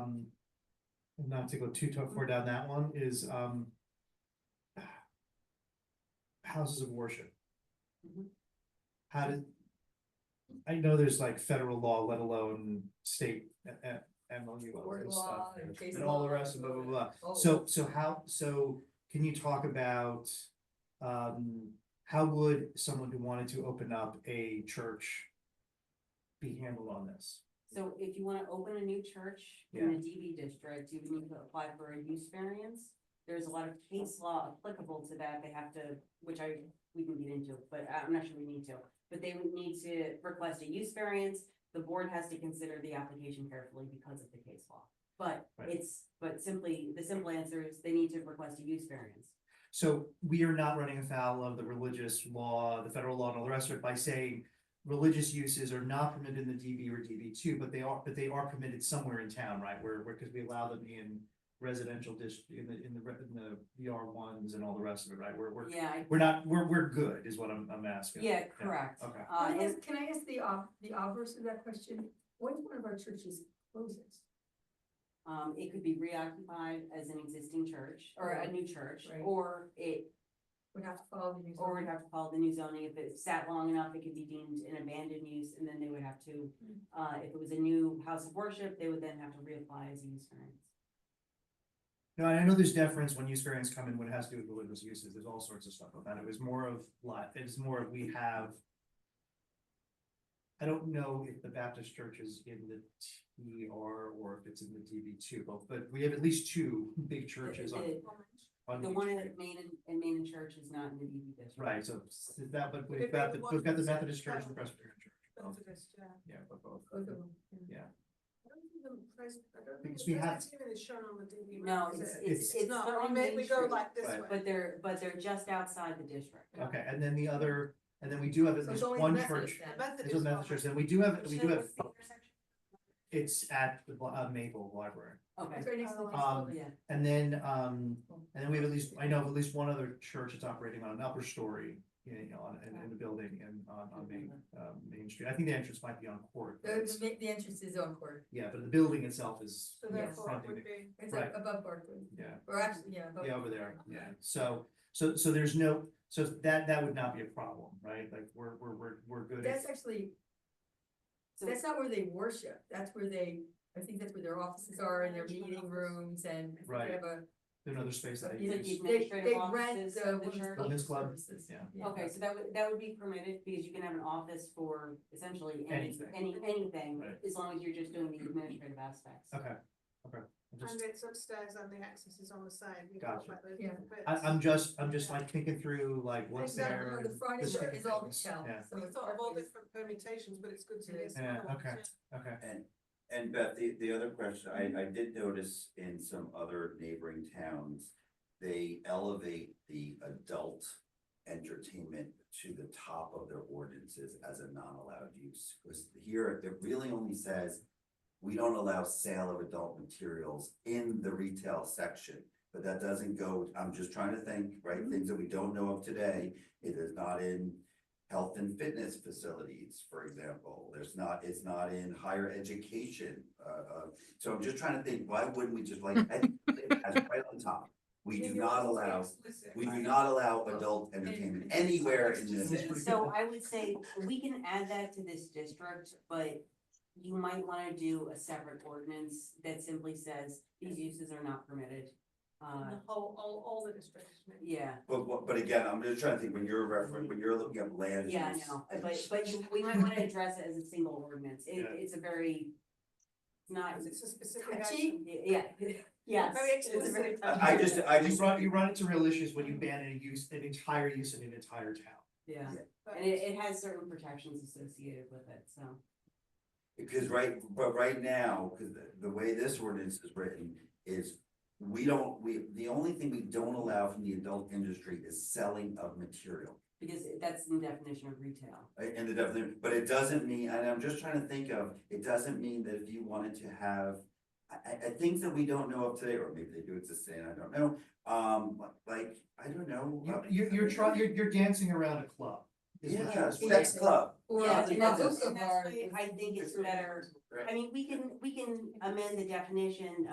um, not to go too too far down that one, is, um, houses of worship. Mhm. How did, I know there's like federal law, let alone state, uh, uh, MOU, all Tort this stuff. law and case And all the law rest of blah, blah, blah. Oh, So, so how, so can you talk about, um, how would someone who wanted to open up a church be handled on this? So if you wanna open a new church in a DB district, you would need to apply for a use variance. There's a lot of case law applicable to that, they have to, which I, we can get into, but I'm not sure we need to. But they would need to request a use variance, the board has to consider the application carefully because of the case law. But Right. it's, but simply, the simple answer is they need to request a use variance. So we are not running afoul of the religious law, the federal law and all the rest of it by saying religious uses are not permitted in the DB or DB two, but they are, but they are permitted somewhere in town, right? Where, where, because we allow them in residential district, in the, in the, re- in the VR ones and all the rest of it, right? We're, we're, Yeah, I- we're not, we're, we're good is what I'm, I'm asking. yeah, correct. okay. Uh, Can I and- ask, can I ask the, ob- the obverse of that question? What if one of our churches closes? Um, it could be reoccupied as an existing church or a new church, Right. or it, Would have to follow the news. or would have to follow the new zoning. If it sat long enough, it could be deemed an abandoned use and then they would have to, Mm-hmm. uh, if it was a new house of worship, they would then have to reapply as a use variance. No, and I know there's deference when use variants come in, when it has to do with religious uses, there's all sorts of stuff about it, it was more of like, it's more of we have. I don't know if the Baptist church is in the TR or if it's in the DB two, but, but we have at least two big churches on, The- on. The each one in street. Maine and, and Maine Church is not in the DB district. Right, so s- that, but But we've if they got the, want- we've got the Methodist church and the Presbyterian church. both. Yeah, but both. Yeah. I don't think the pres- I don't Because think we the have- Presbyterian is shown on the DB. No, map, is it's, it? it's, it's not, not we on may- Main we go Street, like this Right. way. but they're, but they're just outside the district. Okay, and then the other, and then we do have at So it's least only one Methodist church, then. there's a Methodist Methodist one. church, and we do have, Which we do then have, was the intersection? it's at the uh, Maple Library. Okay, It's right next to the Um, library. yeah, And then, um, and then we have at least, I know of at least one other church that's operating on an upper story, you know, on, in, in the building and on, on Main, uh, Main Street. I think the entrance might be on court. but The, it's- the ma- the entrance is on court, Yeah, but the building itself is. So yeah, therefore, it fronting would it. be. it's Right. like above Barclay, Yeah, or actually, yeah, above. yeah, over there, yeah. So, so, so there's no, so that, that would not be a problem, right? Like, we're, we're, we're, we're good. at- That's actually, So- that's not where they worship, that's where they, I think that's where their offices are and their Management meeting office. rooms and. I think Right. They have a, Another space that I Like use. you- they, administrative they offices rent of the the Women's church. women's club, club services. yeah. Okay, so that would, that would be permitted because you can have an office for essentially any, Anything. any, anything, Right. as long as you're just doing the administrative aspects. Okay, okay. I'm just- And it's upstairs and the access is on the side. we go Gotcha. like those Yeah. bits. I, I'm just, I'm just like thinking through like what's Exactly, there. The and Friday this night kind of is all things. Michelle, Yeah, so We it's thought of all Barclays. different permutations, but it's good to hear. some Yeah, other ones, okay. okay. And, and Beth, the, the other question, I, I did notice in some other neighboring towns, they elevate the adult entertainment to the top of their ordinances as a non-allowed use. Because here, it really only says, we don't allow sale of adult materials in the retail section. But that doesn't go, I'm just trying to think, right, things that we don't know of today, it is not in health and fitness facilities, for example. There's not, it's not in higher education. Uh, uh, so I'm just trying to think, why wouldn't we just like, I think that's right on top. We do Maybe not we'll allow, stay explicit. we do not allow adult entertainment anywhere in this. That's pretty So good. I would say we can add that to this district, but you might wanna do a separate ordinance that simply says these uses are not permitted. In Uh, The whole, all, all the districts. maybe. yeah, But, but- but again, I'm just trying to think, when you're referring, when you're looking at land. yeah, I use, know, but, but you, we might wanna address it as a single ordinance. It, Yeah. it's a very, it's not, Because It's a Touchy. specific action. yeah, yes. Very it's a very explicit. touchy I I just, ordinance. I You just. run, you run into real issues when you ban a use, an entire use in an entire town. Yeah. but- And it, it has certain protections associated with it, so. Because right, but right now, because the, the way this ordinance is written is we don't, we, the only thing we don't allow from the adult industry is selling of material. Because that's the definition of retail. uh, In the definition, but it doesn't mean, and I'm just trying to think of, it doesn't mean that if you wanted to have. I, I, I think that we don't know of today, or maybe they do exist today, and I don't know, um, like, I don't know. uh, You- You're, you're trying, you're, you're dancing around a club. is what Yeah, you're- sex club. Or Yeah, the and that's- Azusa and that's bar why is- I think it's better, I mean, we can, we can amend the definition